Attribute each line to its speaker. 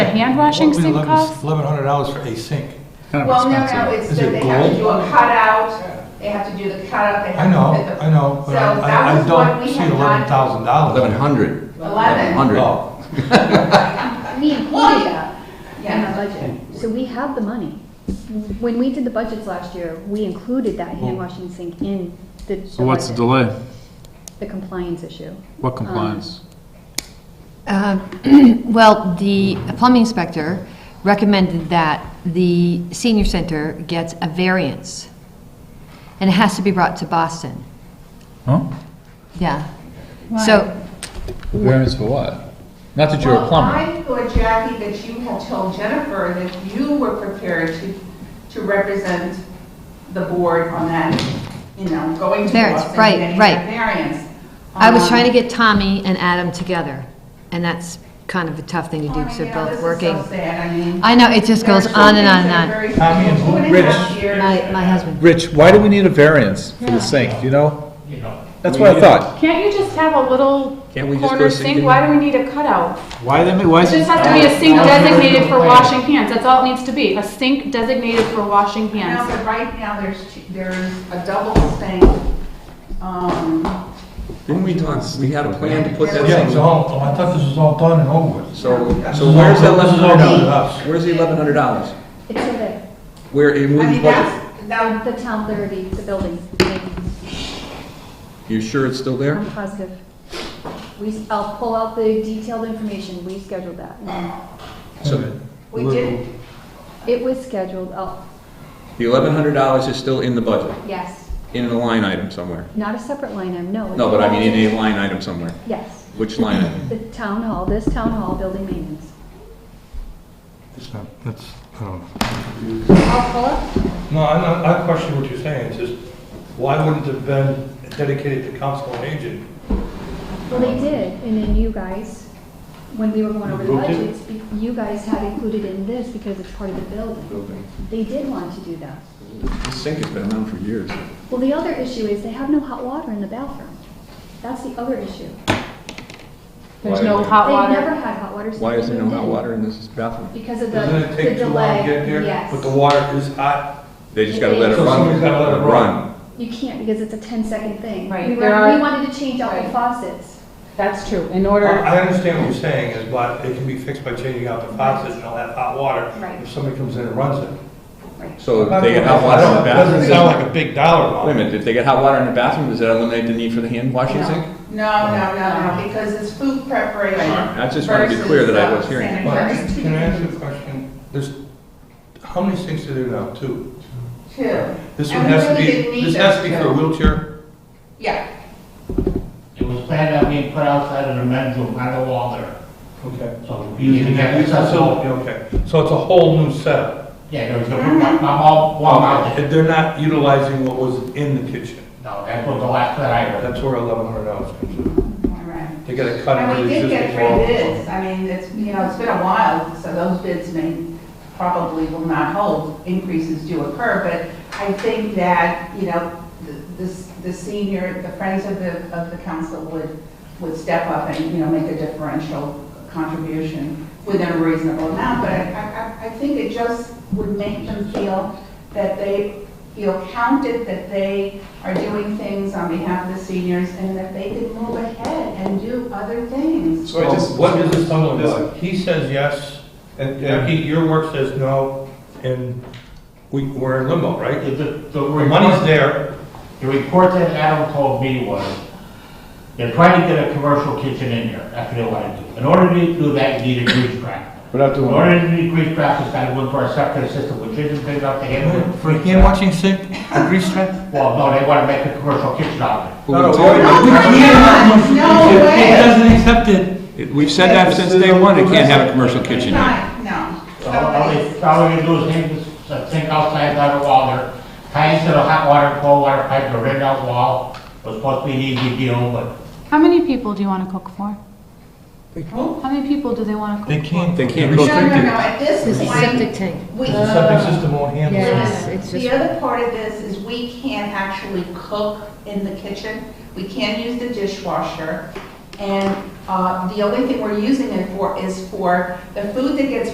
Speaker 1: handwashing sink costs?
Speaker 2: Eleven hundred dollars for a sink.
Speaker 3: Kind of
Speaker 4: Well, no, no,
Speaker 3: expensive.
Speaker 4: it's
Speaker 2: Is
Speaker 4: that
Speaker 2: it
Speaker 4: they have to
Speaker 2: gold?
Speaker 4: do a cutout, they have to do the cutout, they
Speaker 2: I
Speaker 4: have
Speaker 2: know,
Speaker 4: to fit the.
Speaker 2: I know,
Speaker 4: So
Speaker 2: but I-
Speaker 4: that
Speaker 2: I, I
Speaker 4: was what
Speaker 2: don't
Speaker 4: we
Speaker 2: see
Speaker 4: had
Speaker 2: eleven
Speaker 4: done.
Speaker 2: thousand dollars.
Speaker 5: Eleven hundred.
Speaker 4: Eleven,
Speaker 5: Hundred.
Speaker 2: Oh,
Speaker 6: We included that in
Speaker 4: yes.
Speaker 6: our budget, so we have the money. When we did the budgets last year, we included that hand washing sink in the the
Speaker 3: So what's the
Speaker 6: budget.
Speaker 3: delay?
Speaker 6: The compliance issue.
Speaker 3: What compliance?
Speaker 7: Um, Well, the plumbing inspector recommended that the senior center gets a variance, and it has to be brought to Boston.
Speaker 3: Huh?
Speaker 7: Yeah. So,
Speaker 3: Variance for what? Not that you're a
Speaker 4: Well,
Speaker 3: plumber.
Speaker 4: I thought, Jackie, that you had told Jennifer that you were prepared to, to represent the board on that, you know, going to
Speaker 7: Variance,
Speaker 4: Boston
Speaker 7: right,
Speaker 4: and getting
Speaker 7: right.
Speaker 4: that variance.
Speaker 7: I was trying to
Speaker 4: Um,
Speaker 7: get Tommy and Adam together, and that's kind of a tough thing to
Speaker 4: I
Speaker 7: do,
Speaker 4: mean,
Speaker 7: so
Speaker 4: oh, yeah,
Speaker 7: both
Speaker 4: this is
Speaker 7: working.
Speaker 4: so sad, I mean.
Speaker 7: I know, it just
Speaker 4: there are
Speaker 7: goes
Speaker 4: some
Speaker 7: on and
Speaker 4: things
Speaker 7: on
Speaker 4: that are
Speaker 7: and
Speaker 4: very-
Speaker 2: Tommy and who?
Speaker 4: Two and a
Speaker 3: Rich.
Speaker 4: half
Speaker 7: on.
Speaker 4: years.
Speaker 7: My, my husband.
Speaker 3: Rich, why do we need a variance for the sink, do you know? That's what I thought.
Speaker 1: Can't you just have a little
Speaker 8: Can't we just go
Speaker 1: corner
Speaker 8: sink
Speaker 1: sink?
Speaker 8: in?
Speaker 1: Why do we need a cutout?
Speaker 3: Why they, why
Speaker 1: It just has to be a sink designated for washing hands, that's all it needs to be, a sink designated for washing
Speaker 4: Now,
Speaker 1: hands.
Speaker 4: but right now, there's, two- there's a double thing, um,
Speaker 8: Didn't we talk, we had a plan to put that
Speaker 2: yeah,
Speaker 8: thing?
Speaker 2: so, oh, I thought this was all done and over with.
Speaker 8: So,
Speaker 2: This
Speaker 8: so
Speaker 2: is all-
Speaker 8: where's that
Speaker 2: this
Speaker 8: eleven
Speaker 2: is all
Speaker 8: hundred
Speaker 2: done with us.
Speaker 8: dollars? Where's the eleven hundred dollys?
Speaker 6: It's so that
Speaker 8: Where, in
Speaker 4: I
Speaker 8: which
Speaker 4: mean,
Speaker 8: budget?
Speaker 4: that's, that,
Speaker 6: the town levy, the building,
Speaker 8: You sure it's still there?
Speaker 6: I'm positive. We, I'll pull out the detailed information, we scheduled that.
Speaker 8: So
Speaker 4: we did,
Speaker 6: It was scheduled, oh,
Speaker 8: the eleven hundred dollars is still in the budget,
Speaker 6: yes,
Speaker 8: in a line item somewhere?
Speaker 6: not a separate line item, no.
Speaker 8: No, but I mean in a line item somewhere.
Speaker 6: Yes,
Speaker 8: Which line item?
Speaker 6: the town hall, this town hall building maintenance.
Speaker 2: It's not- That's, I don't know.
Speaker 6: I'll pull up
Speaker 2: No, I, I- I question what you're saying, it's just, why wouldn't it have been dedicated to council and agent?
Speaker 6: Well, they did, and then you guys, when we were going over the
Speaker 2: Voted?
Speaker 6: budgets, be- you guys had included in this because it's part of the building.
Speaker 8: Building.
Speaker 6: They did want to do that.
Speaker 8: This sink has been around for years.
Speaker 6: Well, the other issue is they have no hot water in the bathroom. That's the other issue.
Speaker 1: There's
Speaker 8: Why-
Speaker 1: no
Speaker 6: They've
Speaker 1: hot
Speaker 6: never
Speaker 1: water.
Speaker 6: had hot water. so
Speaker 8: Why is there no
Speaker 6: they
Speaker 8: hot
Speaker 6: did.
Speaker 8: water in this bathroom?
Speaker 6: Because of the
Speaker 2: Doesn't
Speaker 6: the
Speaker 2: it
Speaker 6: delay.
Speaker 2: take too long to get here? But the
Speaker 6: Yes.
Speaker 2: water is hot.
Speaker 8: They just gotta let it
Speaker 2: So
Speaker 8: run.
Speaker 2: somebody's gotta let it run.
Speaker 6: You can't because it's a 10-second thing.
Speaker 1: Right,
Speaker 6: We were-
Speaker 1: there are-
Speaker 6: We wanted to change all the
Speaker 4: Right.
Speaker 6: faucets.
Speaker 1: That's true, in
Speaker 2: Well,
Speaker 1: order,
Speaker 2: I understand what you're saying, is, but it can be fixed by changing out the faucet and all that hot water.
Speaker 6: Right.
Speaker 2: If somebody comes in and runs it.
Speaker 8: So if they get hot water in the bathroom.
Speaker 2: Doesn't sound like a big dollar amount.
Speaker 8: Wait a minute, if they get hot water in the bathroom, does that eliminate the need for the hand washing sink?
Speaker 4: no, no, no, no, because it's food preparation.
Speaker 8: Alright, I just wanted to be clear that I was hearing.
Speaker 4: versus, uh,
Speaker 2: But
Speaker 4: sanitary.
Speaker 2: Can I ask you a question? There's, how many sinks are there now? Two?
Speaker 4: Two.
Speaker 2: This
Speaker 4: And
Speaker 2: one
Speaker 4: we
Speaker 2: has to
Speaker 4: really didn't
Speaker 2: be,
Speaker 4: need
Speaker 2: this has to be
Speaker 4: those
Speaker 2: for a
Speaker 4: two.
Speaker 2: wheelchair?
Speaker 4: Yeah,
Speaker 9: It was planned on being put outside of the men's room, on the wall there.
Speaker 2: Okay.
Speaker 9: So
Speaker 2: Using
Speaker 9: using
Speaker 2: that
Speaker 9: that
Speaker 2: new
Speaker 9: accessible.
Speaker 2: facility, okay. So it's a whole new setup.
Speaker 9: Yeah, there was no, I'm
Speaker 2: Oh,
Speaker 9: all, wall mounted.
Speaker 2: And They're not utilizing what was in the kitchen.
Speaker 9: No, that was the last that I heard.
Speaker 2: That's where eleven hundred dollars comes in.
Speaker 4: all right.
Speaker 2: They gotta cut
Speaker 4: And
Speaker 2: into
Speaker 4: we
Speaker 2: the
Speaker 4: did get
Speaker 2: existing
Speaker 4: three
Speaker 2: wall.
Speaker 4: bids, I mean, it's, you know, it's been a while, so those bids may, probably will not hold, increases do occur, but I think that, you know, the, this- the senior, the friends of the, of the council would, would step up and, you know, make a differential contribution within a reasonable amount, but I- I, I, I think it just would make them feel that they feel counted, that they are doing things on behalf of the seniors, and that they can move ahead and do other things.
Speaker 2: So what is this tunnel about? He says yes, and Jackie, your work says no, and we, we're in limbo, right?
Speaker 9: The- The, the
Speaker 2: The money's
Speaker 9: report,
Speaker 2: there,
Speaker 9: the report that Adam told me was, they're trying to get a commercial kitchen in there, that's what they want to do. In order to do that, you need a grease trap.
Speaker 3: Without
Speaker 9: In order to do grease trap, it's gotta go into our septic system, which isn't big enough to handle.
Speaker 2: for a hand washing sink, a grease trap?
Speaker 9: Well, no, they wanna make a commercial kitchen out of it.
Speaker 2: No, no, we
Speaker 4: No,
Speaker 2: already- we can't.
Speaker 4: come on, no
Speaker 2: It
Speaker 4: way.
Speaker 2: doesn't accept it.
Speaker 8: It- We've said that since day one, it can't have a commercial kitchen in it.
Speaker 4: Not, no.
Speaker 9: So All they, all they do is hang this uh, sink outside on the wall there, tie into the hot water, cold water pipe, the red out wall, was supposed to be an easy deal, but
Speaker 1: how many people do you wanna cook for?
Speaker 4: Oh.
Speaker 1: How many people do they wanna
Speaker 2: They
Speaker 1: cook for?
Speaker 2: can't.
Speaker 8: They can't
Speaker 4: No,
Speaker 8: go
Speaker 4: no,
Speaker 8: drink
Speaker 4: no,
Speaker 8: it.
Speaker 4: at this
Speaker 7: This is septic
Speaker 4: point,
Speaker 7: tank.
Speaker 4: we,
Speaker 2: The septic system won't handle it.
Speaker 7: Yes, it's
Speaker 4: the
Speaker 7: just-
Speaker 4: other part of this is we can't actually cook in the kitchen. We can't use the dishwasher. And, uh, the only thing we're using it for is for the food that gets